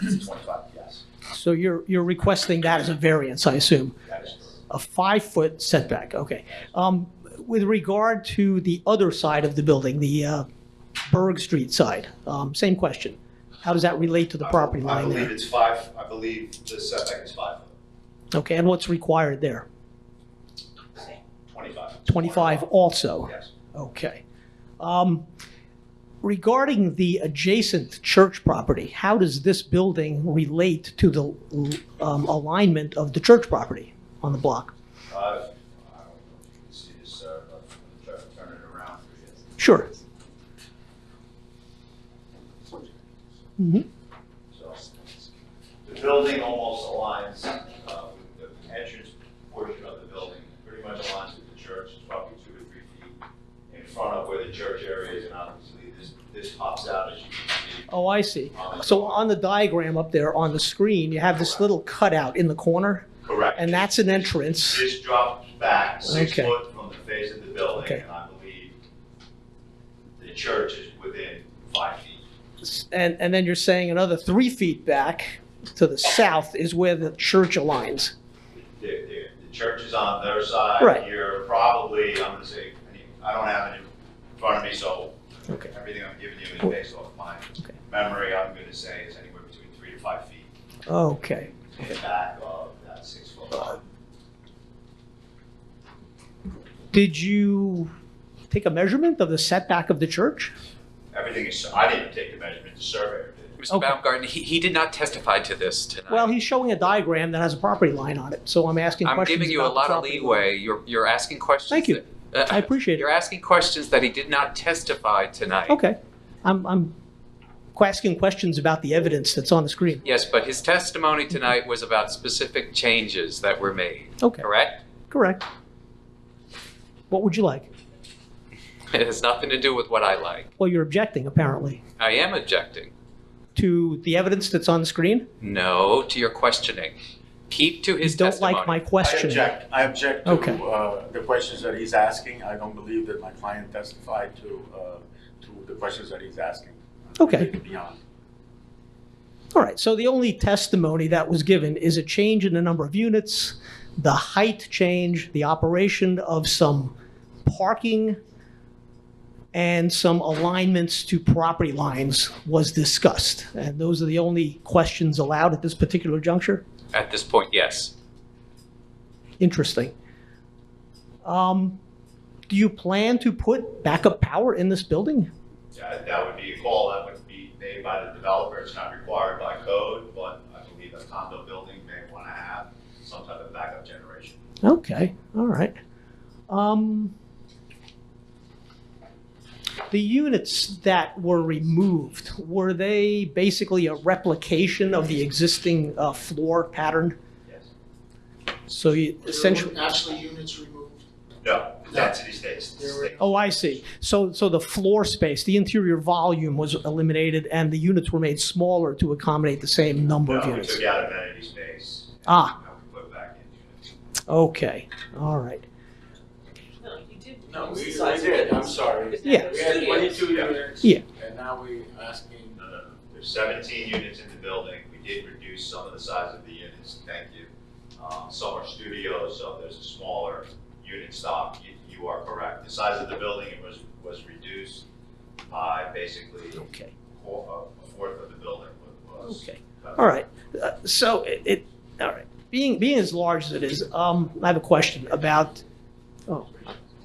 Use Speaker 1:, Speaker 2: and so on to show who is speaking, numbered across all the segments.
Speaker 1: 25, yes.
Speaker 2: So you're, you're requesting that as a variance, I assume?
Speaker 1: That is-
Speaker 2: A five-foot setback, okay. Um, With regard to the other side of the building, the uh, Berg Street side, um, same question. How does that relate to the property
Speaker 1: I
Speaker 2: line
Speaker 1: believe
Speaker 2: there?
Speaker 1: it's five, I believe the setback is five,
Speaker 2: Okay, and what's required there?
Speaker 1: 25.
Speaker 2: 25 also?
Speaker 1: Yes.
Speaker 2: Okay. Um, Regarding the adjacent church property, how does this building relate to the um, alignment of the church property on the block?
Speaker 1: Uh, I don't know if you can see this, uh, but I'm gonna try to turn it around for you.
Speaker 2: Sure. Mm-hmm.
Speaker 1: So the building almost aligns uh, with the entrance portion of the building, pretty much aligns with the church, It's probably two or three feet in front of where the church area is, and obviously this, this pops out as you can see.
Speaker 2: Oh, I see. So on the diagram up there on the screen, you have this little cutout in the corner,
Speaker 1: Correct.
Speaker 2: and that's an entrance.
Speaker 1: This drops back six
Speaker 2: Okay.
Speaker 1: foot from the face of the building,
Speaker 2: Okay.
Speaker 1: and I believe the church is within five feet.
Speaker 2: And, and then you're saying another three feet back to the south is where the church aligns.
Speaker 1: The, the, the church is on their side.
Speaker 2: Right.
Speaker 1: You're probably, I'm gonna say, I don't have it in front of me, so
Speaker 2: Okay.
Speaker 1: Everything I'm giving you is based off my
Speaker 2: Okay.
Speaker 1: memory, I'm gonna say is anywhere between three to five feet
Speaker 2: Okay.
Speaker 1: in the back of that six foot line.
Speaker 2: Did you take a measurement of the setback of the church?
Speaker 1: Everything is, I didn't take the measurement, the surveyor did.
Speaker 3: Mr.
Speaker 2: Okay.
Speaker 3: Baumgarten, he, he did not testify to this tonight.
Speaker 2: Well, he's showing a diagram that has a property line on it, so I'm asking
Speaker 3: I'm
Speaker 2: questions
Speaker 3: giving you a
Speaker 2: about the
Speaker 3: lot of
Speaker 2: property line.
Speaker 3: leeway. You're, you're asking questions.
Speaker 2: Thank you.
Speaker 3: that- uh,
Speaker 2: I appreciate it.
Speaker 3: You're asking questions that he did not testify tonight.
Speaker 2: Okay. I'm, I'm asking questions about the evidence that's on the screen.
Speaker 3: Yes, but his testimony tonight was about specific changes that were made,
Speaker 2: Okay,
Speaker 3: correct?
Speaker 2: correct. What would you like?
Speaker 3: It has nothing to do with what I like.
Speaker 2: Well, you're objecting, apparently,
Speaker 3: I am objecting.
Speaker 2: to the evidence that's on the screen?
Speaker 3: No to your questioning. Keep to
Speaker 2: You
Speaker 3: his
Speaker 2: don't
Speaker 3: testimony.
Speaker 2: like my
Speaker 4: I
Speaker 2: question.
Speaker 4: object, I object to
Speaker 2: Okay.
Speaker 4: uh, the questions that he's asking. I don't believe that my client testified to, uh, to the questions that he's asking. Uh,
Speaker 2: Okay.
Speaker 4: Beyond.
Speaker 2: All right, so the only testimony that was given is a change in the number of units, the height change, the operation of some parking, and some alignments to property lines was discussed. And those are the only questions allowed at this particular juncture?
Speaker 3: At this point, yes.
Speaker 2: Interesting. Um, Do you plan to put backup power in this building?
Speaker 1: That, that would be a call that would be made by the developer, it's not required by code, but I believe a condo building may wanna have some type of backup generation.
Speaker 2: Okay, all right. Um, the units that were removed, were they basically a replication of the existing uh, floor pattern?
Speaker 1: Yes.
Speaker 2: So you essentially,
Speaker 5: There were Actually, units removed.
Speaker 1: No, density stays.
Speaker 5: There were-
Speaker 2: oh, I see. So, so the floor space, the interior volume was eliminated and the units were made smaller to accommodate the same number of
Speaker 1: No, we
Speaker 2: units?
Speaker 1: took out amenity space.
Speaker 2: Ah.
Speaker 1: And we put back in units.
Speaker 2: Okay, all right.
Speaker 6: No, you did.
Speaker 4: No, we, we
Speaker 6: reduce the size of
Speaker 4: did,
Speaker 6: it.
Speaker 4: I'm sorry.
Speaker 2: Yeah.
Speaker 4: We had
Speaker 6: Studios.
Speaker 4: twenty-two units.
Speaker 2: Yeah.
Speaker 4: And now we asking,
Speaker 1: No, no, no. Uh, There's 17 units in the building. We did reduce some of the size of the units, thank you. Um, Some are studios, so there's a smaller unit stock. You- You are correct. The size of the building was, was reduced by basically a
Speaker 2: Okay.
Speaker 1: four- a fourth of the building wa- was.
Speaker 2: Okay. All right. Uh, So it, it, all right. Being, being as large as it is, um, I have a question about, oh,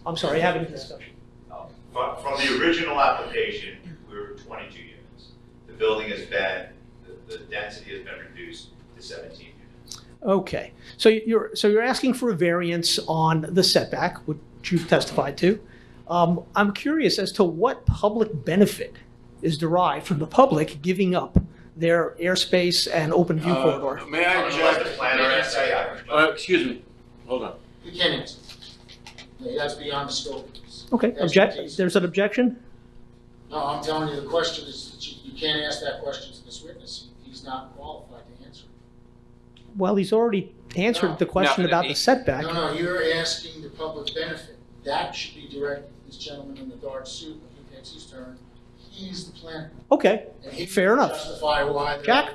Speaker 2: I'm sorry, having a discussion.
Speaker 1: Um, From, from the original application, we were 22 units. The building has been, the- the density has been reduced to 17 units.
Speaker 2: Okay. So you're, so you're asking for a variance on the setback, which you've testified to. Um, I'm curious as to what public benefit is derived from the public giving up their airspace and open view corridor?
Speaker 4: uh, may
Speaker 1: I'm
Speaker 4: I
Speaker 1: going to let the
Speaker 4: object?
Speaker 1: planner say, I-
Speaker 4: Uh, excuse me, hold on.
Speaker 5: You can't answer. No, That's beyond the scope.
Speaker 2: Okay, object,
Speaker 5: expertise.
Speaker 2: there's an objection?
Speaker 5: No, I'm telling you, the question is, that you, you can't ask that question to this witness. He's not qualified to answer.
Speaker 2: Well, he's already answered the question
Speaker 3: No,
Speaker 2: about the
Speaker 3: he-
Speaker 2: setback.
Speaker 5: No, no, you're asking the public benefit. That should be directed to this gentleman in the dark suit when he takes his turn. He's the planner.
Speaker 2: Okay,
Speaker 5: and he
Speaker 2: Fair enough.
Speaker 5: can Justify why. they're-
Speaker 2: Jack,